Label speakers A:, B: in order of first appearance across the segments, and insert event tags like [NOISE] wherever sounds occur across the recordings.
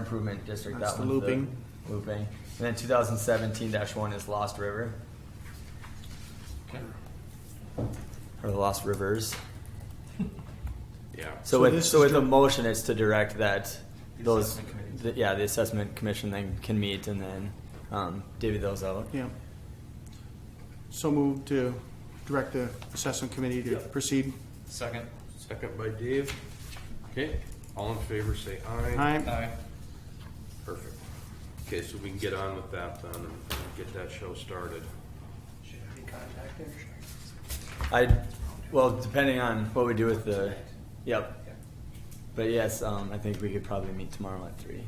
A: improvement district.
B: That's
A: that
B: the
A: one's
B: looping.
A: Looping. And then two thousand seventeen one is Lost River, or the Lost Rivers.
C: Yeah.
A: So
B: So
A: with,
B: this
A: so
B: is
A: with the
B: dir-
A: motion is to direct that
D: The
A: those,
D: assessment committee.
A: the- yeah, the assessment commission then can meet and then, um, divvy those out.
B: Yeah. So move to direct the assessment committee to proceed.
D: Second.
C: Second by Dave. Okay, all in favor, say aye.
B: Aye.
C: Perfect. Okay, so we can get on with that then and get that show started.
D: Should I be contacted?
A: I, well, depending on what we do with the, yep. But yes, um, I think we could probably meet tomorrow at three,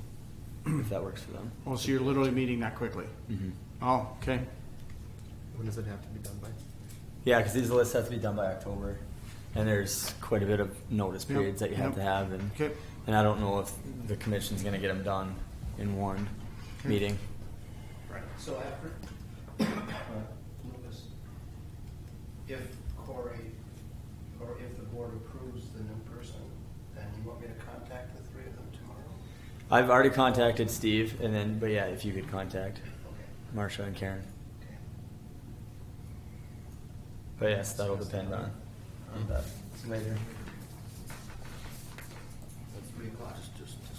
A: if that works for
B: [CLEARS THROAT]
A: them. Mm-hmm.
B: Oh, so you're literally meeting that quickly? Oh, okay.
E: When does it have to be done by?
A: Yeah, because these lists have to be done by October, and there's quite a bit of notice
B: Yep,
A: periods that you have
B: yep.
A: to have, and
B: Okay.
A: and I don't know if the commission's gonna get them done in one meeting.
D: Right, so after, [COUGHS] Lucas, if Corey, or if the board approves the new person, then you want me to contact the three of them tomorrow?
A: I've already contacted Steve, and then but yeah, if you could contact
D: Okay.
A: Marsha and Karen, but yes, that'll depend on on that later.
D: At three o'clock?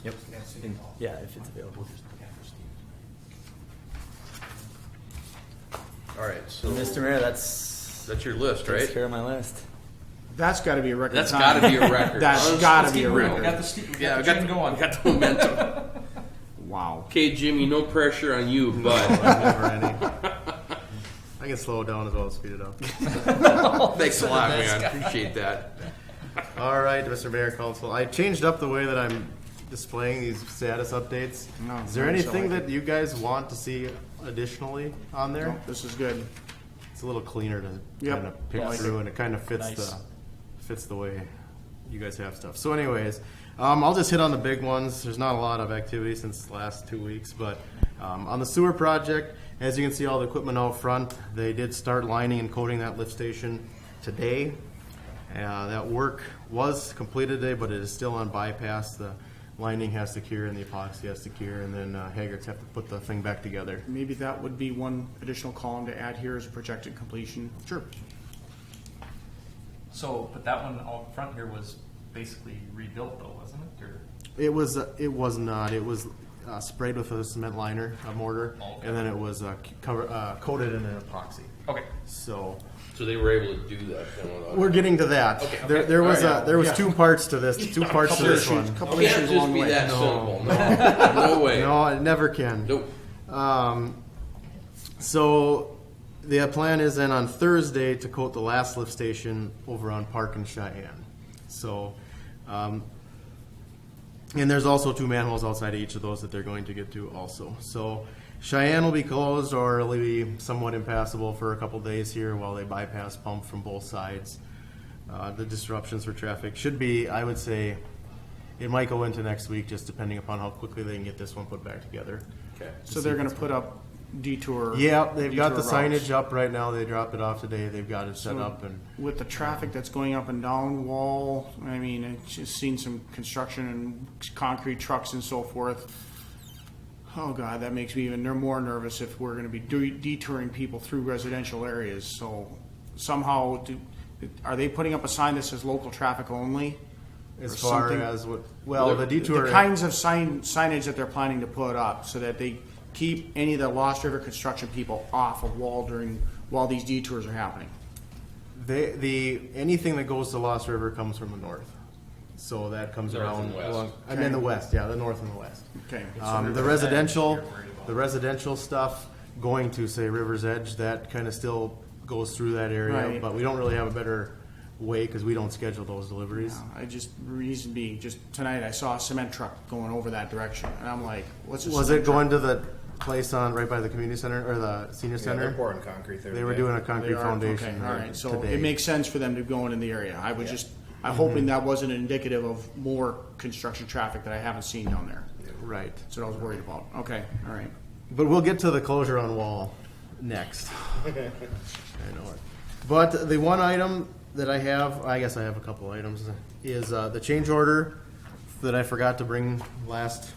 A: Yep.
D: At City
A: And-
D: Hall.
A: Yeah, if it's available.
C: All right, so
A: So, Mr. Mayor, that's
C: that's your list,
A: takes
C: right?
A: care of my list.
B: That's gotta be a record
C: That's
B: time.
C: gotta
B: [LAUGHS]
C: be a record.
B: That's
C: Let's-
B: gotta
C: let's
B: be
C: keep
B: a
C: moving.
B: record.
C: Got the Yeah, we got the, we got the momentum. [LAUGHS]
B: Wow.
C: Okay, Jimmy, no pressure on you, [LAUGHS] but
E: Never any. I can slow it down as well as speed it up. [LAUGHS]
C: thanks a lot, man. Appreciate that.
E: All right, Mr. Mayor, Council, I changed up the way that I'm displaying these status updates.
B: No,
E: Is there
B: I just don't
E: anything
B: like
E: that you guys want to see additionally on there?
B: Nope, Oh, This is good.
E: It's a little cleaner to
B: Yep.
E: kind of pick
B: I like
E: through, and it kind of fits
B: Nice.
E: the fits the way you guys have stuff. So, anyways, um, I'll just hit on the big ones. There's not a lot of activity since the last two weeks, but um, on the sewer project, as you can see, all the equipment out front. They did start lining and coating that lift station today. Uh, that work was completed today, but it is still on bypass. The lining has to cure, and the epoxy has to cure, and then uh, Haggart's have to put the thing back together.
B: Maybe that would be one additional column to add here is projected completion.
E: Sure.
D: So, but that one out front here was basically rebuilt though, wasn't it, or?
E: It was. uh, It was not. It was uh, sprayed with a cement liner, a mortar,
D: Okay.
E: and then it was uh, c- cover, uh, coated in an epoxy.
D: Okay.
E: So
C: So they were able to do that then without.
E: we're getting to that.
C: Okay.
E: There, there was
C: Alright.
E: uh, there was two parts
B: [LAUGHS]
E: to this. Two parts to
B: Couple
E: this
B: issues,
E: one.
B: couple
C: It can't
B: issues
C: just
B: along the
C: be
B: way.
C: that [LAUGHS] simple. No, no way.
E: No, it never can.
C: Nope.
E: Um, so the plan is then on Thursday to coat the last lift station over on Park and Cheyenne. So, um, and there's also two manholes outside each of those that they're going to get to also. So Cheyenne will be closed or it'll be somewhat impassable for a couple days here while they bypass pump from both sides. Uh, the disruptions for traffic should be, I would say, it might go into next week, just depending upon how quickly they can get this one put back together.
C: Okay.
B: So they're gonna put up detour.
E: Yeah, they've got the
B: detour routes.
E: signage up right now. They dropped it off today. They've got it set
B: Hmm.
E: up and
B: With the traffic that's going up and down Wall, I mean, I've just seen some construction and concrete trucks and so forth. Oh God, that makes me even ner- more nervous if we're gonna be de- detouring people through residential areas, so somehow, do- are they putting up a sign that says local traffic only? Or
E: as far
B: something-
E: as what, well, the detour.
B: The kinds of sign, signage that they're planning to put up so that they keep any of the Lost River construction people off of Wall during, while these detours are happening.
E: They, the, anything that goes to Lost River comes from the north. So that comes
C: North
E: around.
C: and west.
E: along- I mean, the west, yeah, the north and the west.
B: Okay.
E: Um, the residential, the residential stuff going to say River's Edge, that kind of still goes through that area,
B: Right.
E: but we don't really have a better way because we don't schedule those deliveries.
B: uh, I just, reason being, just tonight I saw a cement truck going over that direction and I'm like, what's a
E: Was
B: cement
E: it going to the place on, right by the community center or the senior center?
F: pouring concrete there
E: They were
F: today.
E: doing a
B: truck?"
E: concrete
B: They are-
E: foundation.
B: Okay, all right, so
E: today.
B: it makes sense for them to go in in the area. I was just, I'm hoping that wasn't indicative of more construction traffic that I haven't seen down there.
E: Right.
B: That's what I was worried about. Okay, all right.
E: But we'll get to the closure on wall
B: [LAUGHS]
E: next. I know it. But the one item that I have, I guess I have a couple items, is uh, the change order that I forgot to bring last